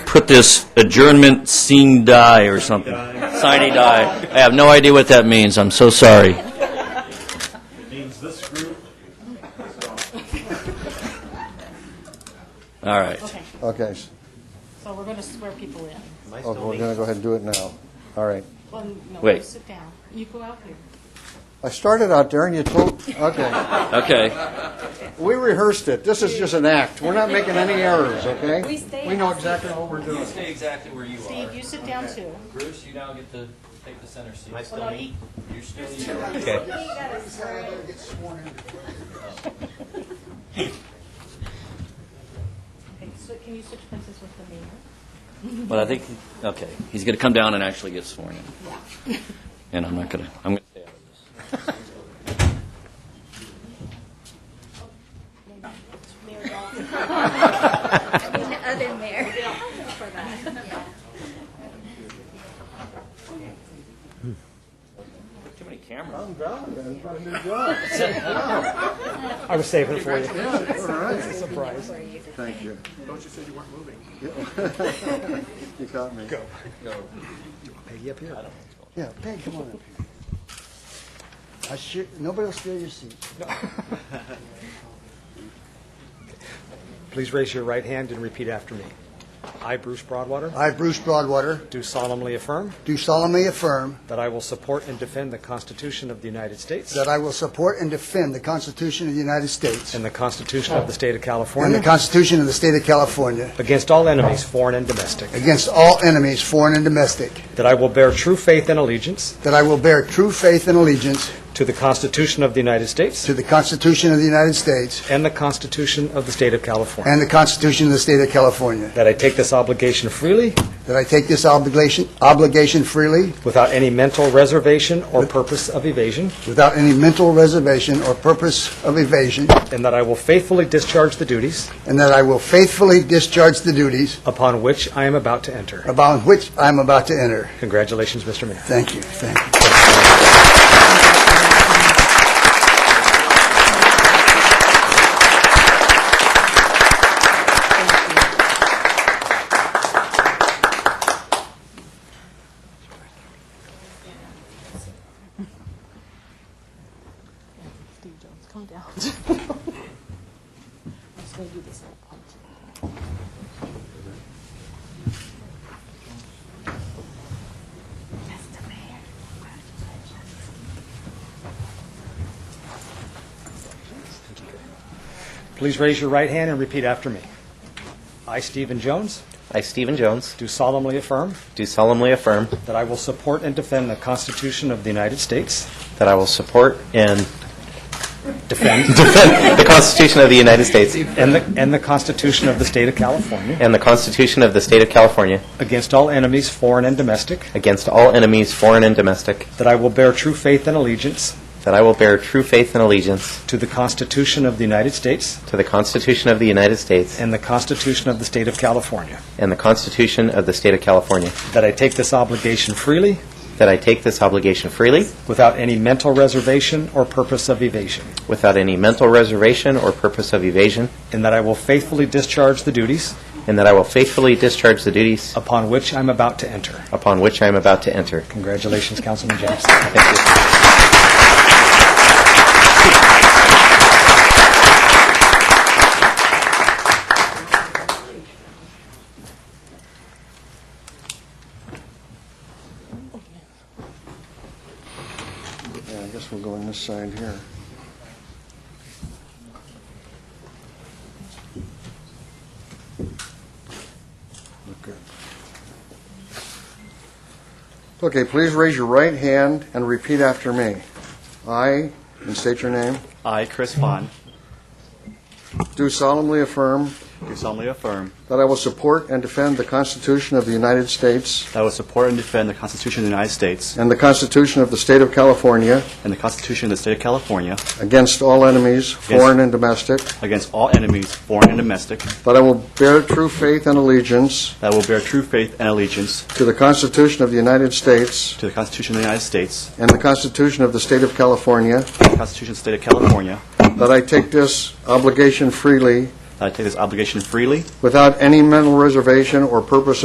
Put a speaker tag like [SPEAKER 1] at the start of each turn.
[SPEAKER 1] put this adjournment scene die or something. Sine die. I have no idea what that means. I'm so sorry.
[SPEAKER 2] means this group
[SPEAKER 1] All right.
[SPEAKER 3] Okay,
[SPEAKER 4] Okay, s-
[SPEAKER 3] so we're going to swear people in.
[SPEAKER 4] okay, we're going to go ahead and do it now. All right.
[SPEAKER 3] Well, no,
[SPEAKER 1] Wait.
[SPEAKER 3] you sit down. You go out here.
[SPEAKER 4] I started out there and you told, okay.
[SPEAKER 1] Okay.
[SPEAKER 4] We rehearsed it. This is just an act. We're not making any errors, okay?
[SPEAKER 5] We stay
[SPEAKER 4] We know
[SPEAKER 5] out.
[SPEAKER 4] exactly what we're doing.
[SPEAKER 6] Stay exactly where you
[SPEAKER 3] Steve, you sit down too.
[SPEAKER 6] Bruce, you now get to take the center seat.
[SPEAKER 3] Well, no, he-
[SPEAKER 6] You're still here.
[SPEAKER 3] okay, so can you switch places with the mayor?
[SPEAKER 1] But I think, okay, he's going to come down and actually get sworn in. And I'm not going to, I'm going to stay out of this.
[SPEAKER 3] Mayor Dalton.
[SPEAKER 5] Other mayor. For that.
[SPEAKER 1] Too many cameras.
[SPEAKER 7] I was saving it for you.
[SPEAKER 5] For you.
[SPEAKER 4] Thank you.
[SPEAKER 2] Don't you say you weren't moving?
[SPEAKER 4] You caught me. Go.
[SPEAKER 7] Peggy up here.
[SPEAKER 4] Yeah, Peg, come on up here. I sure, nobody will steal your seat.
[SPEAKER 7] Please raise your right hand and repeat after me. I, Bruce Broadwater,
[SPEAKER 4] I, Bruce Broadwater,
[SPEAKER 7] do solemnly affirm
[SPEAKER 4] do solemnly affirm
[SPEAKER 7] that I will support and defend the Constitution of the United States
[SPEAKER 4] that I will support and defend the Constitution of the United States
[SPEAKER 7] and the Constitution of the State of
[SPEAKER 4] and the
[SPEAKER 7] California
[SPEAKER 4] Constitution of the State of California
[SPEAKER 7] against all enemies, foreign and domestic,
[SPEAKER 4] against all enemies, foreign and domestic,
[SPEAKER 7] that I will bear true faith and allegiance
[SPEAKER 4] that I will bear true faith and allegiance
[SPEAKER 7] to the Constitution of the United States
[SPEAKER 4] to the Constitution of the United States
[SPEAKER 7] and the Constitution of the State of California,
[SPEAKER 4] and the Constitution of the State of California,
[SPEAKER 7] that I take this obligation freely
[SPEAKER 4] that I take this obligation obligation freely
[SPEAKER 7] without any mental reservation or purpose of evasion,
[SPEAKER 4] without any mental reservation or purpose of evasion,
[SPEAKER 7] and that I will faithfully discharge the duties
[SPEAKER 4] and that I will faithfully discharge the duties
[SPEAKER 7] upon which I am about to enter.
[SPEAKER 4] upon which I am about to enter.
[SPEAKER 7] Congratulations, Mr. Mayor.
[SPEAKER 4] Thank you. Thank you.
[SPEAKER 3] Steve Jones, come down. I'm just going to do this little punch. That's the mayor.
[SPEAKER 7] Please raise your right hand and repeat after me. I, Stephen Jones,
[SPEAKER 8] I, Stephen Jones,
[SPEAKER 7] do solemnly affirm
[SPEAKER 8] do solemnly affirm
[SPEAKER 7] that I will support and defend the Constitution of the United States,
[SPEAKER 8] that I will support and
[SPEAKER 7] defend,
[SPEAKER 8] defend the Constitution of the United States
[SPEAKER 7] and the, and the Constitution of the State of California,
[SPEAKER 8] and the Constitution of the State of California
[SPEAKER 7] against all enemies, foreign and domestic,
[SPEAKER 8] against all enemies, foreign and domestic,
[SPEAKER 7] that I will bear true faith and allegiance
[SPEAKER 8] that I will bear true faith and allegiance
[SPEAKER 7] to the Constitution of the United States
[SPEAKER 8] to the Constitution of the United States
[SPEAKER 7] and the Constitution of the State of California,
[SPEAKER 8] and the Constitution of the State of California,
[SPEAKER 7] that I take this obligation freely
[SPEAKER 8] that I take this obligation freely
[SPEAKER 7] without any mental reservation or purpose of evasion,
[SPEAKER 8] without any mental reservation or purpose of evasion,
[SPEAKER 7] and that I will faithfully discharge the duties
[SPEAKER 8] and that I will faithfully discharge the duties
[SPEAKER 7] upon which I'm about to enter.
[SPEAKER 8] upon which I am about to enter.
[SPEAKER 7] Congratulations, Councilman Jackson.
[SPEAKER 8] Thank you.
[SPEAKER 4] Yeah, I guess we'll go on this side here. Okay. Okay, please raise your right hand and repeat after me. I, and state your name,
[SPEAKER 9] I, Chris Fawn,
[SPEAKER 4] do solemnly affirm
[SPEAKER 9] do solemnly affirm
[SPEAKER 4] that I will support and defend the Constitution of the United States
[SPEAKER 9] that I will support and defend the Constitution of the United States
[SPEAKER 4] and the Constitution of the State of California
[SPEAKER 9] and the Constitution of the State of California
[SPEAKER 4] against all enemies, foreign and domestic,
[SPEAKER 9] against all enemies, foreign and domestic,
[SPEAKER 4] that I will bear true faith and allegiance
[SPEAKER 9] that I will bear true faith and allegiance
[SPEAKER 4] To the Constitution of the United States
[SPEAKER 9] to the Constitution of the United States
[SPEAKER 4] and the Constitution of the State of California,
[SPEAKER 9] and the Constitution of the State of California,
[SPEAKER 4] that I take this obligation freely
[SPEAKER 9] that I take this obligation freely
[SPEAKER 4] without any mental reservation or purpose